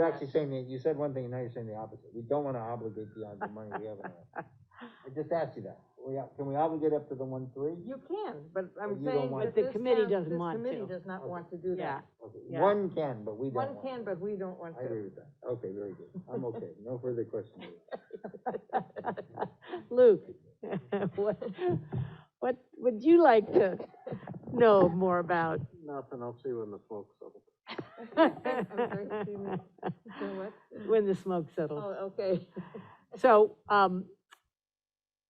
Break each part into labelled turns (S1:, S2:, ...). S1: You're actually saying, that- you said one thing, and now you're saying the opposite, we don't wanna obligate beyond the money we have in there. I just asked you that, we, can we obligate up to the one three?
S2: You can, but
S1: But
S2: I'm
S1: you don't
S2: saying
S1: want
S2: that
S1: But
S2: this
S3: the
S2: town, this
S3: committee doesn't want
S2: committee
S3: to.
S2: does not
S1: Okay.
S2: want to do
S3: Yeah.
S2: that.
S3: Yeah.
S1: One can, but we don't
S2: One
S1: want.
S2: can, but we don't want
S1: I agree
S2: to.
S1: with that, okay, very good, I'm okay, no further questions.
S3: Luke, what, what would you like to know more about?
S1: Nothing, I'll see you in the folks.
S2: sorry, excuse me. So what?
S3: When the smoke settles.
S2: Oh, okay.
S3: So, um,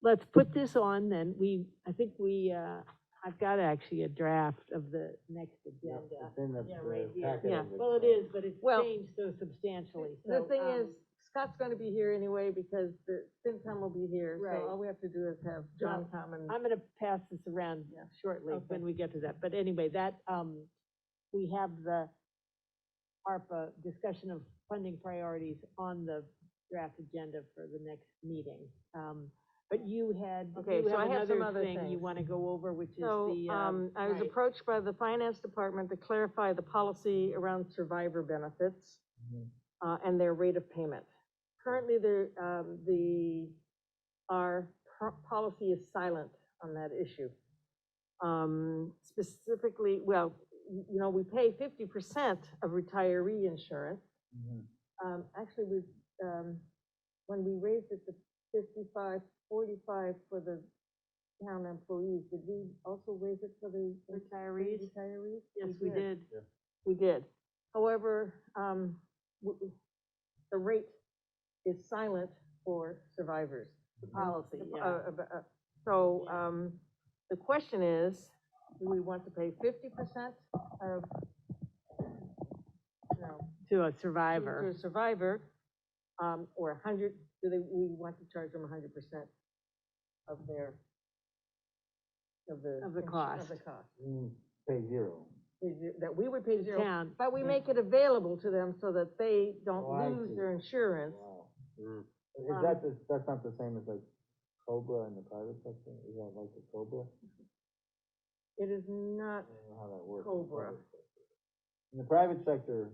S3: let's put this on then. We, I think we, uh, I've got actually a draft of the next agenda.
S1: It's in the,
S3: Yeah, right
S1: the
S3: here.
S1: packet.
S3: Yeah,
S1: of
S3: well, it is, but it's
S2: Well,
S3: changed so substantially,
S2: The
S3: so,
S2: thing
S3: um,
S2: is, Scott's gonna be here anyway, because the FinCom will be here,
S3: Right.
S2: so all we have to do is have John come and.
S3: I'm gonna pass this around
S2: Yeah.
S3: shortly
S2: Okay.
S3: when we get to that, but anyway, that, um, we have the ARPA discussion of funding priorities on the draft agenda for the next meeting. Um, but you had,
S2: Okay,
S3: you
S2: so I
S3: have
S2: have some
S3: another
S2: other
S3: thing you
S2: things.
S3: wanna go over, which is
S2: So,
S3: the, um.
S2: um, I was
S3: right.
S2: approached by the finance department to clarify the policy around survivor benefits,
S1: Mhm.
S2: uh, and their rate of payment. Currently, there, um, the, our pro- policy is silent on that issue. Um, specifically, well, y- you know, we pay fifty percent of retiree insurance.
S1: Mhm.
S2: Um, actually, we, um, when we raised it to 55, 45 for the town employees, did we also raise it for the?
S3: Retirees?
S2: Retirees?
S3: Yes, we did.
S2: We did. However, um, w- w- the rate is silent for survivors.
S1: The
S3: policy,
S2: The-
S3: yeah.
S2: uh, uh, uh, So, um, the question is, do we want to pay fifty percent of, no,
S3: To a
S2: to
S3: survivor,
S2: a survivor, um, or a hundred, do they, we want to charge them a hundred percent of their, of the.
S3: Of the
S2: insu-
S3: cost.
S2: Of the cost,
S1: Mm, Pay zero.
S2: Is it- that we would pay zero,
S3: town,
S2: but we
S1: Yeah.
S2: make it available to them so that they don't
S1: Oh, I see.
S2: lose their insurance.
S1: Wow.
S4: Mm.
S1: Is
S2: Um,
S1: that, the- that's not the same as like Cobra in the private sector, is that like the Cobra?
S2: It is not,
S1: I don't know how that works. in the
S2: Cobra.
S1: private sector. In the private sector,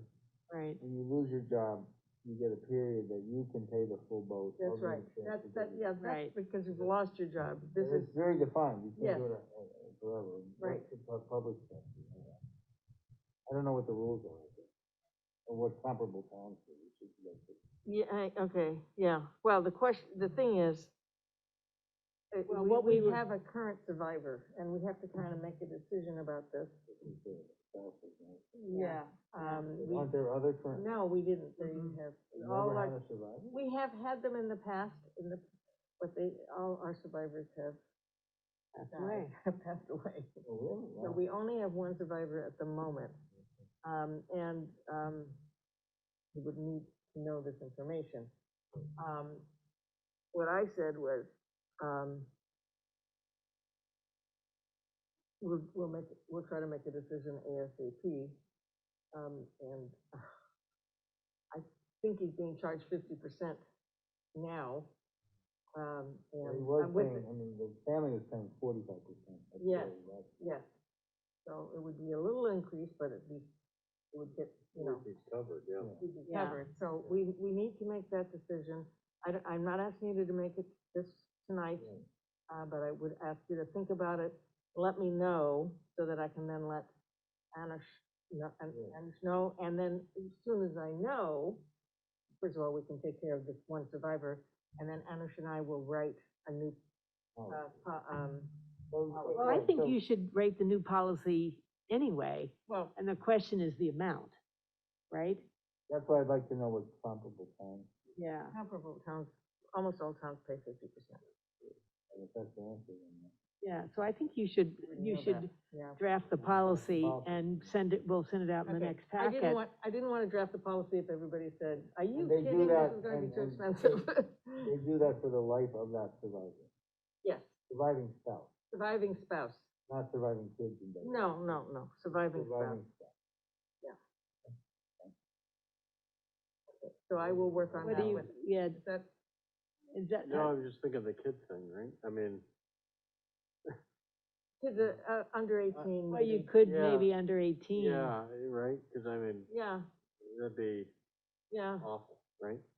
S3: right,
S1: when you lose your job, you get a period that you can pay the full boat. of
S2: that's
S1: the
S2: right,
S1: insurance
S2: that's,
S1: that
S2: that,
S1: you-
S2: yeah, that's
S3: Right.
S2: because you've lost your job, this
S1: And
S2: is,
S1: It's very defined, you
S2: Yes.
S1: can't do it uh, uh, forever. What's
S2: Right.
S1: the pu- Public sector, you know? I don't know what the rules are, I think, or what comparable towns do, we should look at.
S2: yeah, I- okay, yeah, well, the question, the thing is, uh,
S3: Well, what
S2: we,
S3: we
S2: we
S3: would-
S2: have a current survivor, and we have to kind of make a decision about this.
S1: if we do it, that's what it is.
S2: Yeah, um, we,
S1: Aren't there other current,
S2: no, we didn't, they
S3: Mhm.
S2: have, all
S1: never had
S2: our,
S1: a survivor?
S2: we have had them in the past, in the, but they, all our survivors have
S3: that's
S2: died,
S3: right.
S2: have passed away.
S1: Oh, really?
S2: So
S1: Wow.
S2: we only have one survivor at the moment, um, and, um, we would need to know this information. Um, what I said was, um, we'll, we'll make, we'll try to make a decision ASAP, um, and uh, I think he's being charged fifty percent now, um,
S1: Well, He
S2: and
S1: was
S2: I'm with it.
S1: paying, I mean, the family was paying forty-five percent.
S2: Yes. Yes. So it would be a little increase, but it'd be, it would get, you know,
S4: He's covered, yeah.
S2: we'd be
S3: Yeah.
S2: covered. So we, we need to make that decision. I don't, I'm not asking you to make it this tonight,
S3: Um,
S2: uh, but I would ask you to think about it. Let me know so that I can then let Anish, know- An-
S1: Yeah.
S2: Anish know. And then as soon as I know, first of all, we can take care of this one survivor. And then Anish and I will write a new, uh,
S1: Oh.
S2: po- um,
S3: Well, I think you should rate the new policy anyway,
S2: well,
S3: and the question is the amount, right?
S1: That's why I'd like to know what comparable towns,
S3: Yeah.
S2: comparable towns, almost all towns pay fifty percent.
S1: and if that's the answer, then.
S3: Yeah, so I think you should, you
S2: know that.
S3: should
S2: Yeah.
S3: draft the
S1: Yeah,
S3: policy
S1: policy.
S3: and send it, we'll send it out in the
S2: Okay.
S3: next
S2: I didn't
S3: packet.
S2: want, I didn't want to draft the policy if everybody said, are you
S1: And they do
S2: kidding, this
S1: that
S2: is gonna be
S1: and-
S2: too
S1: and-
S2: expensive.
S1: They do that for the life of that survivor,
S2: Yes,
S1: surviving spouse,
S2: surviving spouse.
S1: not surviving kids and babies.
S2: No, no, no, surviving spouse.
S1: Surviving spouse.
S2: So I will work on
S3: What do
S2: that
S3: you,
S2: with,
S3: yeah,
S2: is that,
S3: is that,
S4: No, I was just thinking of the kid thing, right? I mean,
S2: to the, uh, under eighteen.
S3: well, you
S2: maybe.
S3: could
S4: Yeah.
S3: maybe under eighteen.
S4: yeah, right, cause I mean,
S2: Yeah,
S4: that'd be,
S2: yeah.
S4: awful, right?